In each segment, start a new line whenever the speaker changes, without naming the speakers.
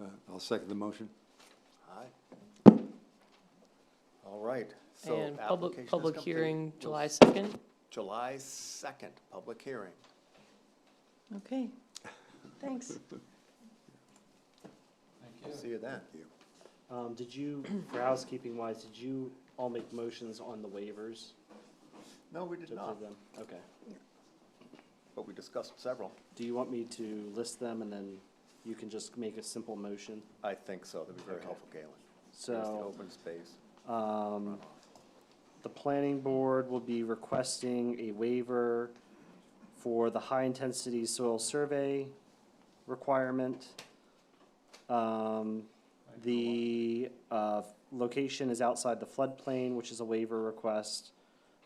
Uh, I'll second the motion.
Aye. All right, so.
And
application
public,
is
public
complete.
hearing
We'll
July
s-
2nd?
July second, public hearing.
Okay, thanks.
See you then.
Um, did you, for housekeeping wise, did you all make motions on the waivers?
No, we
to
did not,
approve them? Okay.
but we discussed several.
Do you want me to list them and then you can just make a simple motion?
I think so, that'd be very
Okay.
helpful, Galen. Here's the
So,
open space.
um, the planning board will be requesting a waiver for the high-intensity soil survey requirement. Um, the, uh, location is outside the floodplain, which is a waiver request.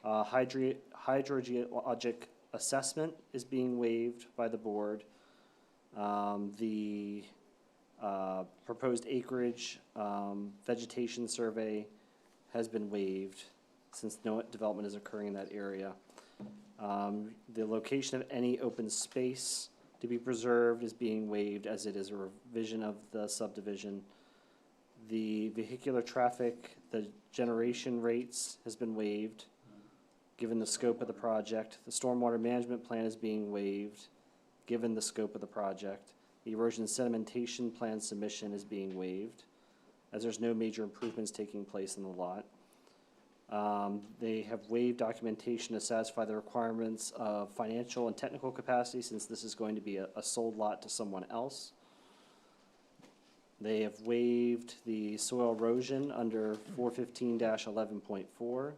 Uh, hydri- hydrogeologic assessment is being waived by the board. Um, the, uh, proposed acreage, um, vegetation survey has been waived since no development is occurring in that area. Um, the location of any open space to be preserved is being waived as it is a revision of the subdivision. The vehicular traffic, the generation rates has been waived, given the scope of the project. The stormwater management plan is being waived, given the scope of the project. The erosion sedimentation plan submission is being waived, as there's no major improvements taking place in the lot. Um, they have waived documentation to satisfy the requirements of financial and technical capacity, since this is going to be a, a sold lot to someone else. They have waived the soil erosion under four fifteen eleven point four.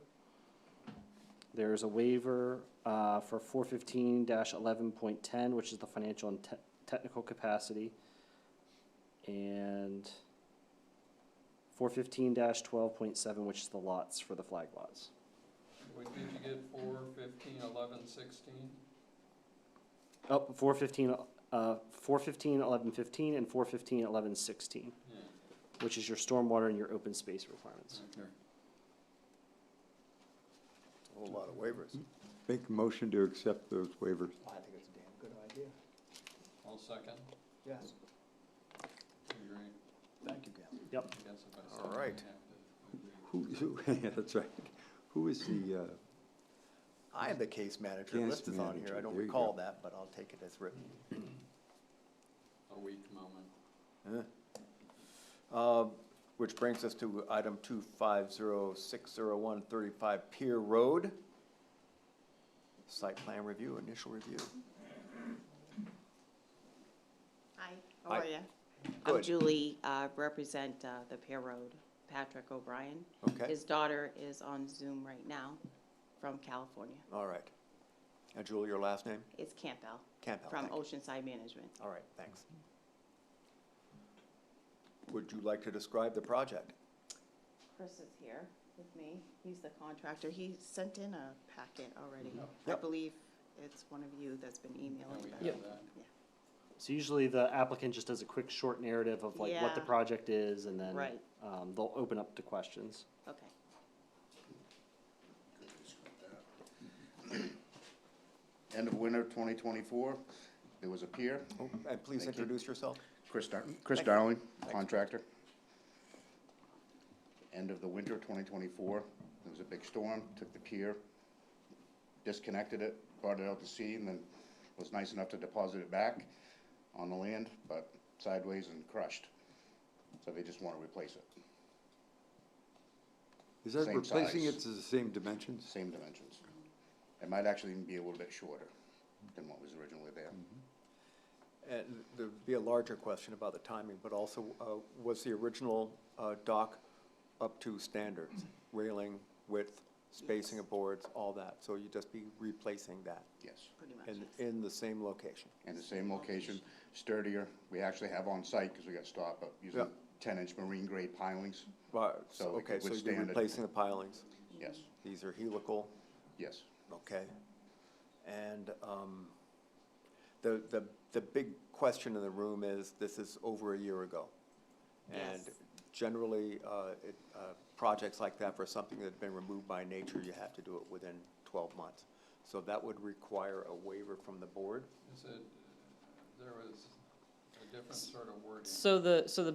There is a waiver, uh, for four fifteen eleven point ten, which is the financial and te- technical capacity. And four fifteen twelve point seven, which is the lots for the flag lots.
What did you get, four, fifteen, eleven, sixteen?
Oh, four fifteen, uh, four fifteen eleven fifteen and four fifteen eleven sixteen,
Yeah,
which is your stormwater and your open space requirements.
okay.
A whole lot of waivers.
Make a motion to accept those waivers.
I think it's a damn good idea.
I'll second.
Yes.
Agree.
Thank you, Galen.
I
Yep,
guess if I
All
second, I
right.
have to agree.
Who, who, yeah, that's right. Who is the, uh,
I am the case manager,
Case
list is on here,
manager,
I don't
there you
recall
go.
that, but I'll take it as written.
A weak moment.
Um, Which brings us to item two five zero six zero one thirty-five Pier Road. Site plan review, initial review.
Hi, how are
Hi.
you?
Good.
I'm Julie, uh, represent uh, the Pear Road, Patrick O'Brien.
Okay.
His daughter is on Zoom right now from California.
All right. And Julie, your last name?
It's Campbell
Campbell.
from
Oh, thank you.
Oceanside Management.
All right, thanks. Would you like to describe the project?
Chris is here with me. He's the contractor. He sent in a packet already. I
Oh, Yep.
believe it's one of you that's been
Now we
emailing.
have
them.
that.
so usually the applicant just does a quick short narrative of like what the
Yeah.
project is and then,
Right.
um, they'll open up to questions.
Okay.
end of winter 2024, there was a pier.
And please
Thank you.
introduce yourself.
Chris Dar- Chris Darling, contractor. End of the winter 2024, there was a big storm, took the pier, disconnected it, brought it out to sea, and then was nice enough to deposit it back on the land, but sideways and crushed. So they just want to replace it,
is that
Same
replacing it
size.
to the same dimensions?
same dimensions. It might actually even be a little bit shorter than what was originally there.
And there'd be a larger question about the timing, but also, uh, was the original, uh, dock up to standards? Railing, width, spacing of boards, all that, so you'd just be replacing that
Yes.
Pretty much.
in, in the same location.
in the same location, sturdier. We actually have on site, because we got stopped, but using
Yeah.
ten-inch marine grade pilings.
But, so,
So it
okay,
could
so you're
withstand it.
replacing the pilings,
Yes,
these are helical,
yes.
okay? And, um, the, the, the big question in the room is, this is over a year ago. And
Yes.
generally, uh, it, uh, projects like that, for something that's been removed by nature, you have to do it within twelve months. So that would require a waiver from the board.
Is it, there was uh, a different sort of wording.
So the, so the